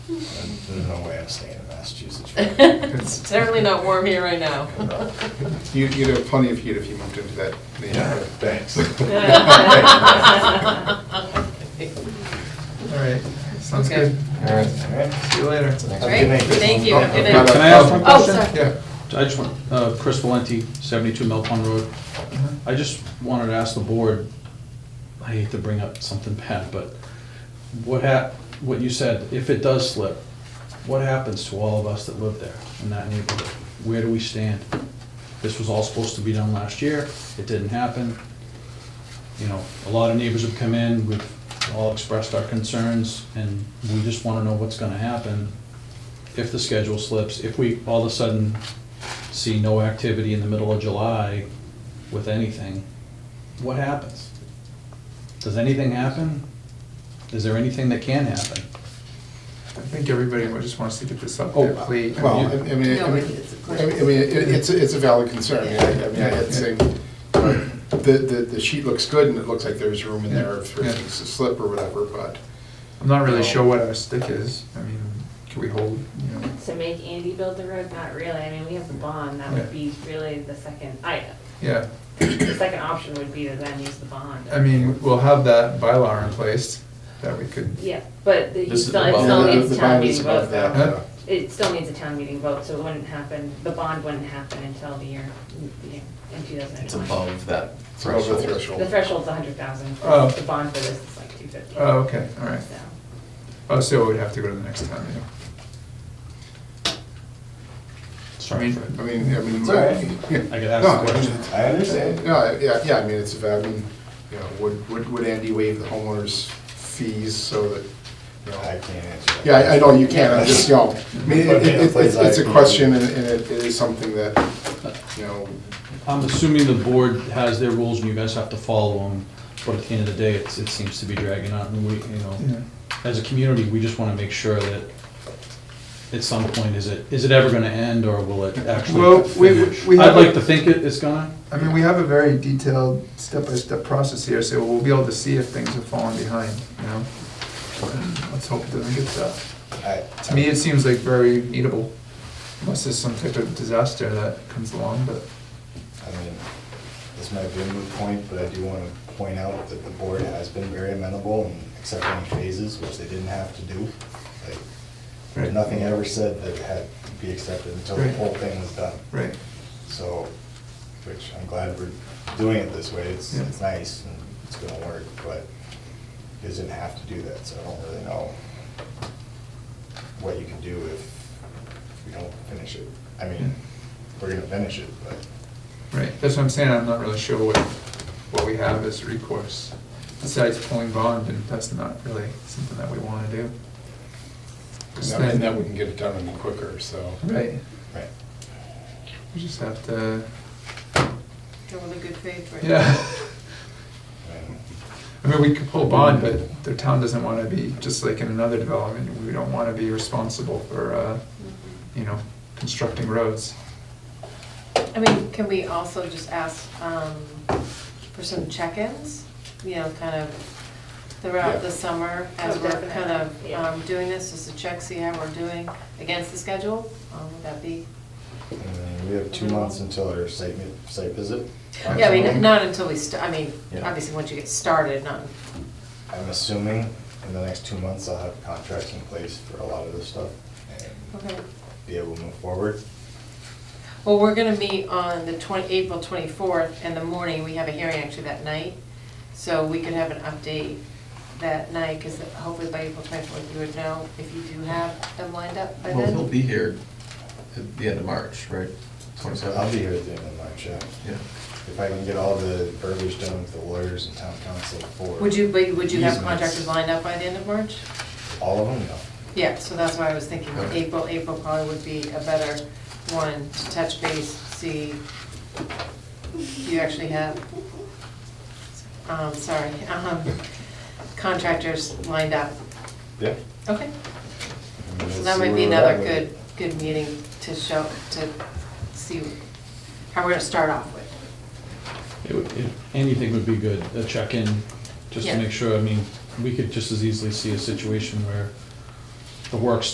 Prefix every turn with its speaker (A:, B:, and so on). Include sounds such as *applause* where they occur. A: There's no way I'm staying in Massachusetts. *laughs*
B: It's certainly not warm here right now.
C: You- You'd have plenty of heat if you moved into that
A: Yeah,
C: neighborhood.
A: thanks.
D: All right, sounds
B: Okay.
D: good.
E: All right.
D: See you later.
B: Great, thank you.
C: Oh,
B: Good
C: I've got
B: night.
C: a-
F: Can I ask one
C: Oh,
B: Oh,
F: question?
B: sorry.
C: Yeah.
F: I just want, uh, Chris Valenti, 72 Mill Pond Road. I just wanted to ask the board, I hate to bring up something bad, but what hap, what you said, if it does slip, what happens to all of us that live there in that neighborhood? Where do we stand? This was all supposed to be done last year, it didn't happen. You know, a lot of neighbors have come in, we've all expressed our concerns, and we just want to know what's going to happen if the schedule slips, if we all of a sudden see no activity in the middle of July with anything, what happens? Does anything happen? Is there anything that can happen?
D: I think everybody would just wants to get this up
F: Oh,
D: there, please.
C: uh, Well, I I mean, I
B: No,
C: mean,
B: it's a
C: I
B: question.
C: mean, I mean, it- it's, it's a valid concern. I mean, I I mean, I had seen, the, the the sheet looks good and it looks like there's room in there for
D: Yeah.
C: things to slip or whatever, but.
D: I'm not really sure what our stick is. I mean, can we hold, you know?
G: To make Andy build the road, not really, I mean, we have the bond, that would
D: Yeah.
G: be really the second, I,
D: Yeah,
G: the second option would be to then use the bond.
D: I mean, we'll have that bylaw in place that we could,
G: Yeah, but the- you
E: This is
G: still,
E: the
G: it
E: bond.
G: still
E: No,
C: The-
G: needs
C: the
G: a town
C: bond is
G: meeting vote
C: above that,
G: though.
D: Huh?
C: uh,
G: It still needs a town meeting vote, so it wouldn't happen, the bond wouldn't happen until the year, the year- in two thousand and
E: It's
G: twenty.
E: above that
C: It's above the
E: threshold.
G: The
C: threshold.
G: threshold's a hundred thousand,
D: Oh.
G: the bond for this is like two fifty.
D: oh, okay, all right.
G: So,
D: Oh, so we'd have to go to the next town meeting.
F: Sorry,
D: mean-
C: I mean, I mean.
A: It's all right.
F: I could
C: No,
F: ask
C: I
F: the
C: mean,
F: question.
A: I understand.
C: *laughs* No, I- yeah, yeah, I mean, it's, I mean, you know, would, would, would Andy waive the homeowner's fees so that, you know,
A: I can't answer that.
C: Yeah, I- I know, you can, I'm just, you know, I mean, it- it- it's it's a question, and and it it is something that, you know,
F: I'm assuming the board has their rules and you guys have to follow them, but at the end of the day, it's, it seems to be dragging out and we, you
D: Yeah.
F: know, as a community, we just want to make sure that at some point, is it, is it ever going to end or will it
D: Well,
F: actually
D: we- we-
F: finish?
D: we have
F: I'd like
D: a-
F: to think it is gonna.
D: I mean, we have a very detailed step-by-step process here, so we'll be able to see if things have fallen behind, you know? Let's hope it doesn't get to that.
A: I-
D: To me, it seems like very eatable, unless there's some type of disaster that comes along, but,
A: I mean, this might be a moot point, but I do want to point out that the board has been very amenable and accepting phases, which they didn't have to do. Like,
D: Right.
A: Nothing ever said that it had to be accepted until the
D: Right.
A: whole thing was done.
D: right.
A: So, which I'm glad we're doing it this way, it's,
D: Yeah.
A: it's nice and it's gonna work, but it doesn't have to do that, so I don't really know what you can do if we don't finish it. I mean, we're gonna finish it, but
D: Right, that's what I'm saying, I'm not really sure what, what we have as recourse, besides pulling bond, and that's not really something that we wanna do.
C: and that wouldn't get it done any quicker, so.
D: Right,
A: Right.
D: we just have to,
B: Go with a good faith, right?
D: yeah,
A: And
D: I mean, we could pull bond, but the town doesn't wanna be, just like in another development, we don't wanna be responsible for, uh, you know, constructing roads.
B: I mean, can we also just ask um, for some check-ins? You know, kind of
C: Yeah.
B: throughout the summer as
G: Oh,
B: we're
G: definitely,
B: kind of
G: yeah.
B: um, doing this, just to check, see how we're doing against the schedule? Um, Would that be,
A: then we have two months until our site, mi- site visit.
B: yeah, I mean, not until we, st- I mean,
A: Yeah.
B: obviously, once you get started, not,
A: I'm assuming in the next two months I'll have contracts in place for a lot of this stuff and
B: okay.
A: be able to move forward.
B: Well, we're gonna meet on the twenty, April twenty-fourth in the morning, we have a hearing actually that night, so we could have an update that night, because hopefully by April twenty-fourth, you would know if you do have them lined up by
E: Well,
B: then.
E: he'll be here at the end of March, right?
A: So
E: 27th?
A: I'll be here at the end of March, yeah.
E: Yeah.
A: If I can get all the verbiage done with the lawyers and town council for.
B: Would you, but would you have
A: Easements.
B: contractors lined up by the end of March?
A: All of them, no.
B: Yeah, so that's why I was thinking
E: Okay.
B: April, April probably would be a better one to touch base, see if you actually have, um, sorry, um, contractors lined up.
A: Yeah. I
B: Okay,
A: mean,
B: so
A: let's
B: that
A: see
B: might be
A: where we're at
B: another
A: with it.
B: good, good meeting to show, to see how we're gonna start off with.
F: It would- it- Anything would be good, a check-in, just to
B: Yeah.
F: make sure, I mean, we could just as easily see a situation where the work's